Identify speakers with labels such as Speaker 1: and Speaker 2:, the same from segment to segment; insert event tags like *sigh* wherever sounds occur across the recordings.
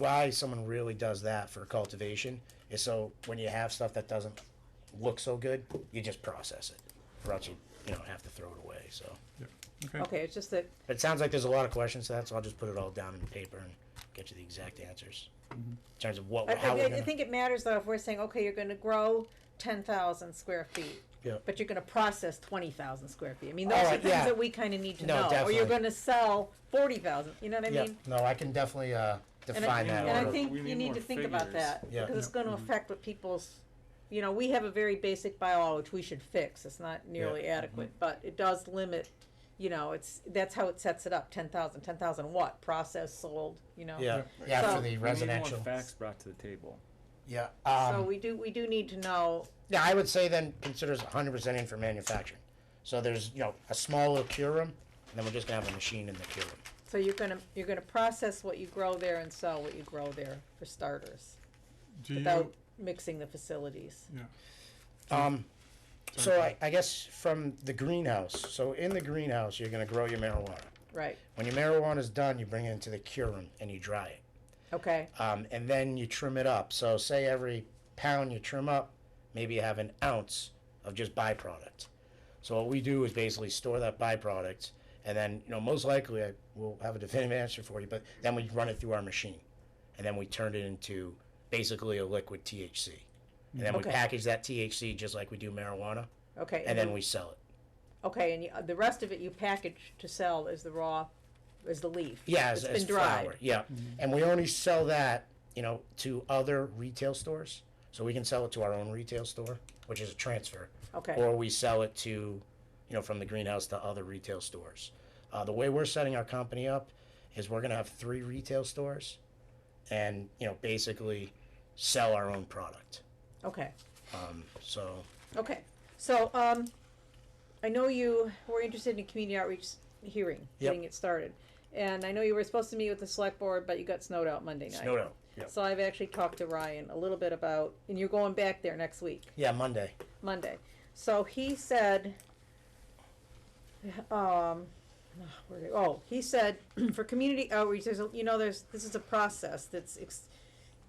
Speaker 1: why someone really does that for cultivation is so when you have stuff that doesn't look so good, you just process it. Or else you, you know, have to throw it away, so.
Speaker 2: Okay, it's just that,
Speaker 1: But it sounds like there's a lot of questions to that, so I'll just put it all down in paper and get you the exact answers.
Speaker 3: Mm-hmm.
Speaker 1: In terms of what,
Speaker 2: I,
Speaker 1: how
Speaker 2: I,
Speaker 1: we're
Speaker 2: I
Speaker 1: gonna,
Speaker 2: think it matters though if we're saying, okay, you're gonna grow ten thousand square feet,
Speaker 1: yeah,
Speaker 2: but you're gonna process twenty thousand square feet. I mean,
Speaker 1: All
Speaker 2: those are
Speaker 1: right,
Speaker 2: things
Speaker 1: yeah.
Speaker 2: that we kinda need to
Speaker 1: No,
Speaker 2: know, or you're
Speaker 1: definitely.
Speaker 2: gonna sell forty thousand, you know what I
Speaker 1: yeah,
Speaker 2: mean?
Speaker 1: no, I can definitely, uh,
Speaker 2: And I,
Speaker 1: define that.
Speaker 2: and I
Speaker 1: order.
Speaker 2: think
Speaker 3: We
Speaker 2: you
Speaker 3: need
Speaker 2: need
Speaker 3: more
Speaker 2: to think about
Speaker 3: figures.
Speaker 2: that,
Speaker 1: Yeah.
Speaker 2: because it's gonna
Speaker 3: Mhm.
Speaker 2: affect what people's, you know, we have a very basic bylaw which we should fix, it's not nearly
Speaker 1: Mm-hmm.
Speaker 2: adequate, but it does limit, you know, it's, that's how it sets it up, ten thousand, ten thousand what, process, sold, you know?
Speaker 1: Yeah, yeah, for
Speaker 2: So-
Speaker 1: the
Speaker 3: We
Speaker 1: residential,
Speaker 3: need more facts brought to the table.
Speaker 1: yeah,
Speaker 2: So
Speaker 1: um,
Speaker 2: we do, we do need to know,
Speaker 1: yeah, I would say then considers hundred percent in for manufacturing. So there's, you know, a small little cure room, and then we're just gonna have a machine in the cure room.
Speaker 2: so you're gonna, you're gonna process what you grow there and sell what you grow there for starters,
Speaker 1: Mm-hmm.
Speaker 4: Do you,
Speaker 2: without mixing the facilities.
Speaker 4: yeah,
Speaker 1: Um, so I,
Speaker 4: Sorry.
Speaker 1: I guess from the greenhouse, so in the greenhouse, you're gonna grow your marijuana.
Speaker 2: Right,
Speaker 1: When your marijuana's done, you bring it into the cure room and you dry it.
Speaker 2: okay,
Speaker 1: um, and then you trim it up. So say every pound you trim up, maybe you have an ounce of just byproduct. So what we do is basically store that byproduct, and then you know most likely I will have a definitive answer for you. But then we run it through our machine, and then we turn it into basically a liquid THC, and then
Speaker 2: Okay.
Speaker 1: we package that THC just like we do marijuana,
Speaker 2: okay.
Speaker 1: and then we sell it.
Speaker 2: Okay, and you, uh, the rest of it you package to sell as the raw, as the leaf.
Speaker 1: Yeah, as,
Speaker 2: It's
Speaker 1: as
Speaker 2: been dried.
Speaker 1: flour. Yeah, and we only sell that, you know, to other retail stores. So we can sell it to our own retail store, which is a transfer,
Speaker 2: Okay,
Speaker 1: or we sell it to, you know, from the greenhouse to other retail stores. Uh, the way we're setting our company up is we're gonna have three retail stores, and you know, basically, sell our own product.
Speaker 2: okay,
Speaker 1: Um, so
Speaker 2: okay. So, um, I know you were interested in a community outreach hearing,
Speaker 1: Yep.
Speaker 2: getting it started. And I know you were supposed to meet with the select board, but you got snowed out Monday night.
Speaker 1: snowed out. Yeah.
Speaker 2: So I've actually talked to Ryan a little bit about, and you're going back there next week.
Speaker 1: Yeah, Monday.
Speaker 2: Monday. So he said, um, where- oh, he said, *clears throat* for community outreach, there's, a you know, there's, this is a process that's, ex-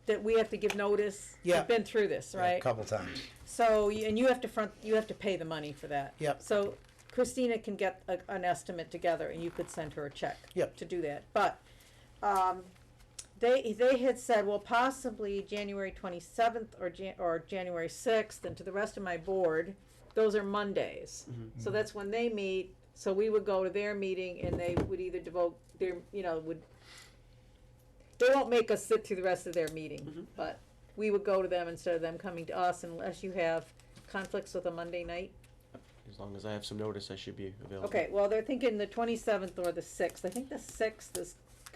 Speaker 2: that we have to give notice. We've
Speaker 1: Yeah.
Speaker 2: Been through this,
Speaker 1: A
Speaker 2: right?
Speaker 1: couple times.
Speaker 2: So, y- and you have to front, you have to pay the money for that.
Speaker 1: Yep.
Speaker 2: So Christina can get a, an estimate together and you could send her a check.
Speaker 1: Yep.
Speaker 2: To do that, but, um, they, they had said, well, possibly January twenty-seventh or Jan- or January sixth, and to the rest of my board, those are Mondays.
Speaker 1: Mm-hmm.
Speaker 2: So that's when they meet, so we would go to their meeting and they would either devote their, you know, would, they won't make us sit through the rest of their
Speaker 1: Mm-hmm.
Speaker 2: meeting, but we would go to them instead of them coming to us unless you have conflicts with a Monday night.
Speaker 5: As long as I have some notice, I should be available.
Speaker 2: Okay, well, they're thinking the twenty-seventh or the sixth. I think the sixth is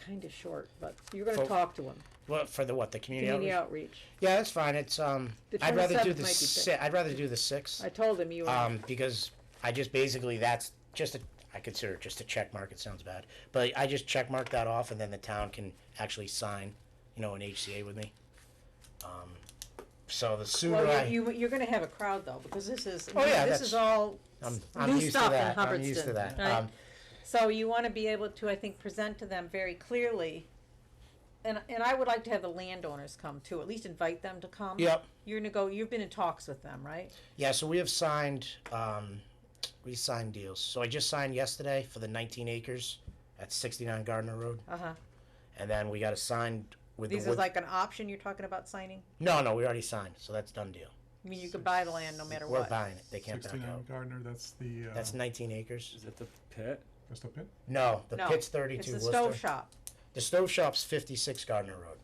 Speaker 2: kinda short, but you're gonna
Speaker 1: Fol-
Speaker 2: talk to them,
Speaker 1: Well, for the what the community,
Speaker 2: community
Speaker 1: outreach?
Speaker 2: outreach.
Speaker 1: Yeah, that's fine. It's um,
Speaker 2: The
Speaker 1: I'd rather do
Speaker 2: 27th
Speaker 1: the
Speaker 2: might be
Speaker 1: si- I'd rather do the sixth.
Speaker 2: I told him you were,
Speaker 1: um, because I just basically that's just a I consider it just a check mark. It sounds bad, but I just check mark that off, and then the town can actually sign, you know, an HCA with me. Um, so the sooner
Speaker 2: well,
Speaker 1: I,
Speaker 2: you, you- you're gonna have a crowd though, because this is,
Speaker 1: Oh, yeah,
Speaker 2: this
Speaker 1: that's-
Speaker 2: is all
Speaker 1: I'm,
Speaker 2: s-
Speaker 1: I'm
Speaker 2: new
Speaker 1: used to
Speaker 2: stuff in
Speaker 1: that. I'm used to
Speaker 2: Hubbardston,
Speaker 1: that.
Speaker 2: right?
Speaker 1: Um,
Speaker 2: So you wanna be able to, I think, present to them very clearly. And, and I would like to have the landowners come too, at least invite them to come.
Speaker 1: yep.
Speaker 2: You're gonna go, you've been in talks with them, right?
Speaker 1: Yeah. So we have signed. Um, we signed deals. So I just signed yesterday for the 19 acres at 69 Gardner Road,
Speaker 2: Uh-huh.
Speaker 1: and then we got a signed with
Speaker 2: These
Speaker 1: the.
Speaker 2: is
Speaker 1: Wood-
Speaker 2: like an option you're talking about signing?
Speaker 1: no, no, we already signed. So that's done deal.
Speaker 2: I mean, you could buy the land no matter
Speaker 1: We're
Speaker 2: what.
Speaker 1: buying it. They can't back out.
Speaker 4: sixty-nine Gardner, that's the, uh,
Speaker 1: That's 19 acres.
Speaker 3: Is it the pit?
Speaker 4: that's the pit?
Speaker 1: No, the
Speaker 2: No,
Speaker 1: pit's
Speaker 2: It's
Speaker 1: thirty-two
Speaker 2: the
Speaker 1: Worcester.
Speaker 2: stove shop.
Speaker 1: The stove shop's fifty-six Gardner Road.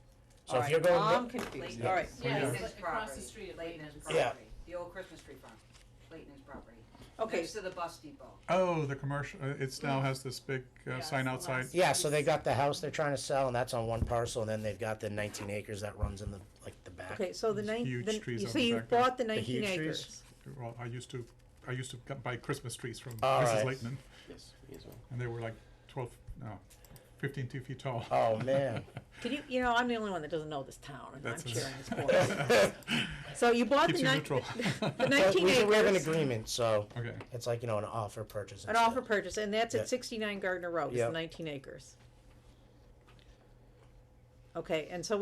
Speaker 1: So if
Speaker 2: Alright,
Speaker 1: you're going,
Speaker 2: I'm
Speaker 1: no-
Speaker 2: confused,
Speaker 6: Layton's.
Speaker 2: alright.
Speaker 4: Yeah,
Speaker 6: Yeah,
Speaker 4: it's
Speaker 6: it's
Speaker 7: like
Speaker 6: across the street of Layton's
Speaker 7: Layton's.
Speaker 1: Yeah.
Speaker 6: property, the old Christmas tree farm, Layton's property.
Speaker 2: Okay,
Speaker 6: Next to the bus depot.
Speaker 4: Oh, the commercial, uh, it's now has this big, uh,
Speaker 7: Yeah,
Speaker 4: sign
Speaker 7: it's the
Speaker 4: outside.
Speaker 7: last-
Speaker 1: yeah, so they got the house they're trying to sell, and that's on one parcel, and then they've got the nineteen acres that runs in the like the back.
Speaker 2: okay, so the
Speaker 4: These
Speaker 2: nine,
Speaker 4: huge
Speaker 2: the-
Speaker 4: trees
Speaker 2: you
Speaker 4: out
Speaker 2: see,
Speaker 4: the
Speaker 2: you
Speaker 4: back there.
Speaker 2: bought the nineteen
Speaker 1: huge trees?
Speaker 2: acres.
Speaker 4: Well, I used to, I used to g- buy Christmas trees from
Speaker 1: All
Speaker 4: Mrs.
Speaker 1: right.
Speaker 4: Leighton,
Speaker 5: Yes, me as well.
Speaker 4: and they were like twelve, no, fifteen, two feet tall.
Speaker 1: Oh man,
Speaker 2: Can you, you know, I'm the only one that doesn't know this town, and I'm
Speaker 4: That's a-
Speaker 2: sharing this
Speaker 4: *laughs*
Speaker 2: board. So you bought
Speaker 4: Keeps
Speaker 2: the
Speaker 4: you
Speaker 2: nine,
Speaker 4: neutral.
Speaker 2: *laughs* the
Speaker 1: But
Speaker 2: *laughs* nineteen
Speaker 1: we, we have an
Speaker 2: acres,
Speaker 1: agreement, so
Speaker 4: Okay,
Speaker 1: it's like you know an offer purchase.
Speaker 2: an offer purchase, and that's
Speaker 1: Yeah.
Speaker 2: at sixty-nine Gardner Road, is the
Speaker 1: Yep.
Speaker 2: nineteen acres. Okay, and so